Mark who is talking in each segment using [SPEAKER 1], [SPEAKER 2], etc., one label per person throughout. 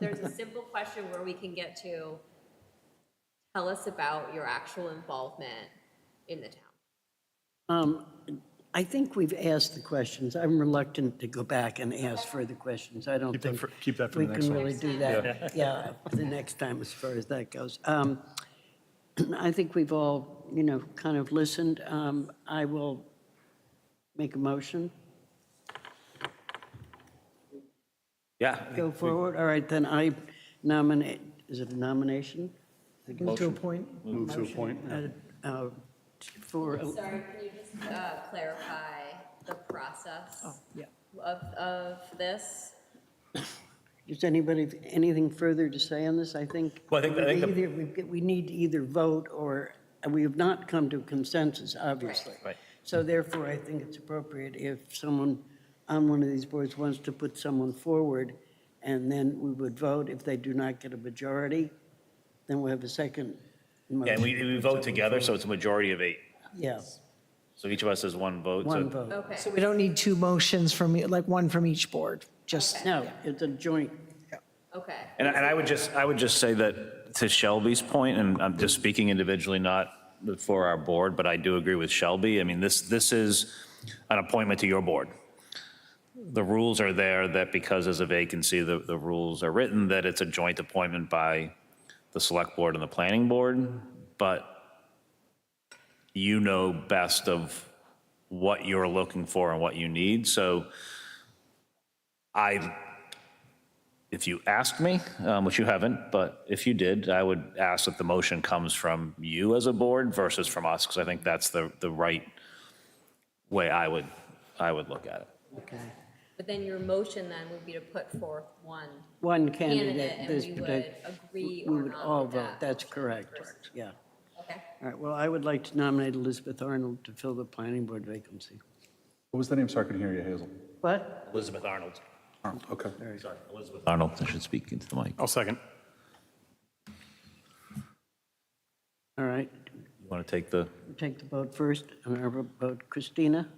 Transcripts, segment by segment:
[SPEAKER 1] there's a simple question where we can get to, tell us about your actual involvement in the town.
[SPEAKER 2] Um, I think we've asked the questions. I'm reluctant to go back and ask further questions. I don't
[SPEAKER 3] Keep that
[SPEAKER 2] think.
[SPEAKER 3] for- keep that for the next
[SPEAKER 2] We
[SPEAKER 3] one.
[SPEAKER 2] can really do that, yeah, for the next time as far as that goes. Um, I think we've all, you know, kind of listened. Um, I will make a motion,
[SPEAKER 4] Yeah.
[SPEAKER 2] go forward. All right, then I nominate, is it a nomination?
[SPEAKER 5] Move to appoint.
[SPEAKER 3] Move to appoint.
[SPEAKER 2] Uh, uh, For,
[SPEAKER 1] Sorry, can you just uh, clarify the
[SPEAKER 2] Oh,
[SPEAKER 1] process
[SPEAKER 5] Yeah.
[SPEAKER 1] of, of this?
[SPEAKER 2] does anybody, have anything further to say on this? I think.
[SPEAKER 4] Well, I think- I think the-
[SPEAKER 2] Either, we- we need to either vote or, and we have not come to consensus, obviously.
[SPEAKER 4] Right.
[SPEAKER 2] So therefore, I think it's appropriate if someone on one of these boards wants to put someone forward, and then we would vote. If they do not get a majority, then we'll have a second
[SPEAKER 4] Yeah, and
[SPEAKER 2] motion.
[SPEAKER 4] we, we vote together, so it's a majority of eight.
[SPEAKER 2] Yeah,
[SPEAKER 4] So each of us has one vote. so-
[SPEAKER 2] one vote.
[SPEAKER 1] Okay,
[SPEAKER 5] So we don't need two motions from, e- like one from each board, just,
[SPEAKER 2] No, it's a joint,
[SPEAKER 1] okay.
[SPEAKER 4] And, and I would just, I would just say that to Shelby's point, and I'm just speaking individually, not for our board, but I do agree with Shelby. I mean, this, this is an appointment to your board. The rules are there that because there's a vacancy, the, the rules are written that it's a joint appointment by the select board and the planning board, but you know best of what you're looking for and what you need. So I if you asked me, um, which you haven't, but if you did, I would ask that the motion comes from you as a board versus from us, because I think that's the, the right way I would, I would look at it.
[SPEAKER 2] okay.
[SPEAKER 1] But then your motion then would be to put forth one
[SPEAKER 2] One
[SPEAKER 1] candidate,
[SPEAKER 2] candidate,
[SPEAKER 1] and
[SPEAKER 2] this
[SPEAKER 1] we would
[SPEAKER 2] particular.
[SPEAKER 1] agree
[SPEAKER 2] We
[SPEAKER 1] or
[SPEAKER 2] would all
[SPEAKER 1] not with
[SPEAKER 2] vote,
[SPEAKER 1] that.
[SPEAKER 2] that's correct, yeah.
[SPEAKER 1] Okay,
[SPEAKER 2] All right, well, I would like to nominate Elizabeth Arnold to fill the planning board vacancy.
[SPEAKER 3] What was the name? Sorry, I couldn't hear you, Hazel.
[SPEAKER 2] What?
[SPEAKER 4] Elizabeth Arnold.
[SPEAKER 3] Oh, Okay.
[SPEAKER 4] Sorry, Elizabeth. Arnold, I should speak into the mic.
[SPEAKER 3] I'll second.
[SPEAKER 2] All right,
[SPEAKER 4] You want to take the,
[SPEAKER 2] take the vote first, and our vote Christina?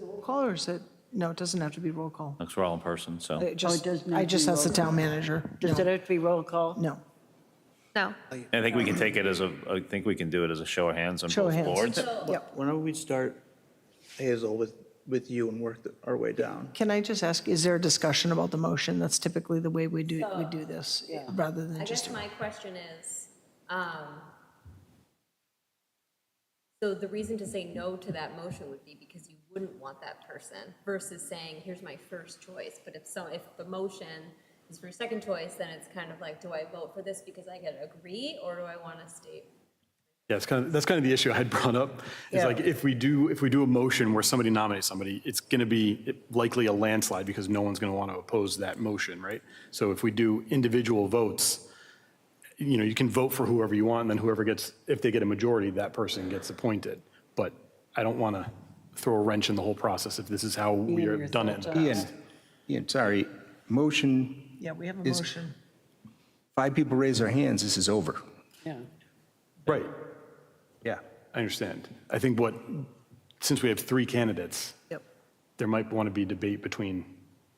[SPEAKER 5] roll call, or is it, no, it doesn't have to be roll call. Oh,
[SPEAKER 4] because we're all in person, so.
[SPEAKER 5] It just,
[SPEAKER 2] does need
[SPEAKER 5] I
[SPEAKER 2] to
[SPEAKER 5] just
[SPEAKER 2] be
[SPEAKER 5] asked the
[SPEAKER 2] roll
[SPEAKER 5] town manager.
[SPEAKER 2] Does
[SPEAKER 5] No,
[SPEAKER 2] it have to be roll call?
[SPEAKER 5] No,
[SPEAKER 1] no.
[SPEAKER 4] I think we can take it as a, I think we can do it as a show of hands on
[SPEAKER 5] show of
[SPEAKER 4] both
[SPEAKER 5] hands.
[SPEAKER 4] boards.
[SPEAKER 5] Yep.
[SPEAKER 6] Why don't we start, Hazel, with, with you and work our way down?
[SPEAKER 5] Can I just ask, is there a discussion about the motion? That's typically the way we do, we do this, rather
[SPEAKER 1] I
[SPEAKER 5] than
[SPEAKER 1] guess
[SPEAKER 5] just,
[SPEAKER 1] my question is, um, so the reason to say no to that motion would be because you wouldn't want that person versus saying, here's my first choice. But if so, if the motion is for second choice, then it's kind of like, do I vote for this because I can agree or do I want to state?
[SPEAKER 3] Yeah, it's kind of, that's kind of the issue I had brought up. It's like, if we do, if we do a motion where somebody nominates somebody, it's going to be likely a landslide because no one's going to want to oppose that motion, right? So if we do individual votes, you know, you can vote for whoever you want, and then whoever gets, if they get a majority, that person gets appointed. But I don't want to throw a wrench in the whole process if this is how we are done it. in the
[SPEAKER 7] Ian, Ian, sorry, motion,
[SPEAKER 5] yeah, we have a
[SPEAKER 7] Is-
[SPEAKER 5] motion.
[SPEAKER 7] five people raise their hands, this is over.
[SPEAKER 2] Yeah.
[SPEAKER 3] Right,
[SPEAKER 7] Yeah.
[SPEAKER 3] I understand. I think what, since we have three candidates,
[SPEAKER 5] Yep.
[SPEAKER 3] there might want to be debate between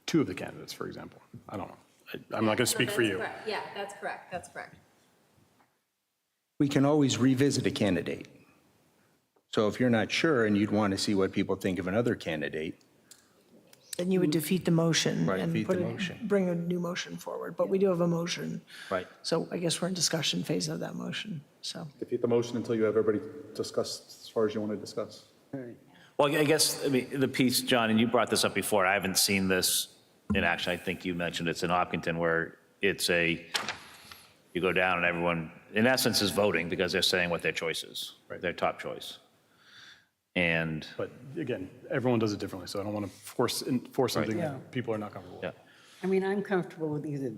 [SPEAKER 3] two of the candidates, for example. I don't know. I- I'm not going to speak for
[SPEAKER 1] That's
[SPEAKER 3] you.
[SPEAKER 1] correct. Yeah, that's correct, that's correct.
[SPEAKER 7] We can always revisit a candidate. So if you're not sure and you'd want to see what people think of another candidate,
[SPEAKER 5] Then you would defeat the motion.
[SPEAKER 7] Right,
[SPEAKER 5] and
[SPEAKER 7] defeat
[SPEAKER 5] put
[SPEAKER 7] the
[SPEAKER 5] a-
[SPEAKER 7] motion.
[SPEAKER 5] Bring a new motion forward, but we do have a motion.
[SPEAKER 7] Right.
[SPEAKER 5] So I guess we're in discussion phase of that motion, so.
[SPEAKER 8] defeat the motion until you have everybody discussed as far as you want to discuss.
[SPEAKER 4] Well, I guess, I mean, the piece, John, and you brought this up before, I haven't seen this in action, I think you mentioned it's in Hopkinton, where it's a, you go down and everyone, in essence, is voting because they're saying what their choice is, their top choice. And,
[SPEAKER 3] But again, everyone does it differently, so I don't want to force, force something that people are not comfortable with.
[SPEAKER 4] yeah.
[SPEAKER 2] I mean, I'm comfortable with either.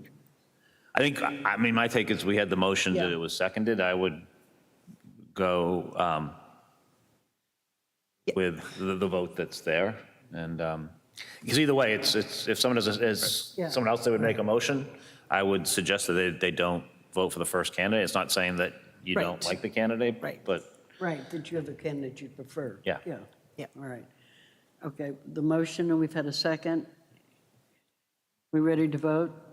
[SPEAKER 4] I think, I mean, my take is we had the motion that it was seconded, I would go um, with the the vote that's there, and, because either way, it's, it's, if someone does, is
[SPEAKER 2] Yeah.
[SPEAKER 4] someone else that would make a motion, I would suggest that they, they don't vote for the first candidate, it's not saying that you don't
[SPEAKER 5] Right.
[SPEAKER 4] like the candidate,
[SPEAKER 5] Right.
[SPEAKER 4] but
[SPEAKER 2] Right, that you have a candidate you prefer.
[SPEAKER 4] Yeah.
[SPEAKER 2] Yeah.
[SPEAKER 5] Yeah.
[SPEAKER 2] All right. Okay, the motion, and we've had a second. We ready to vote?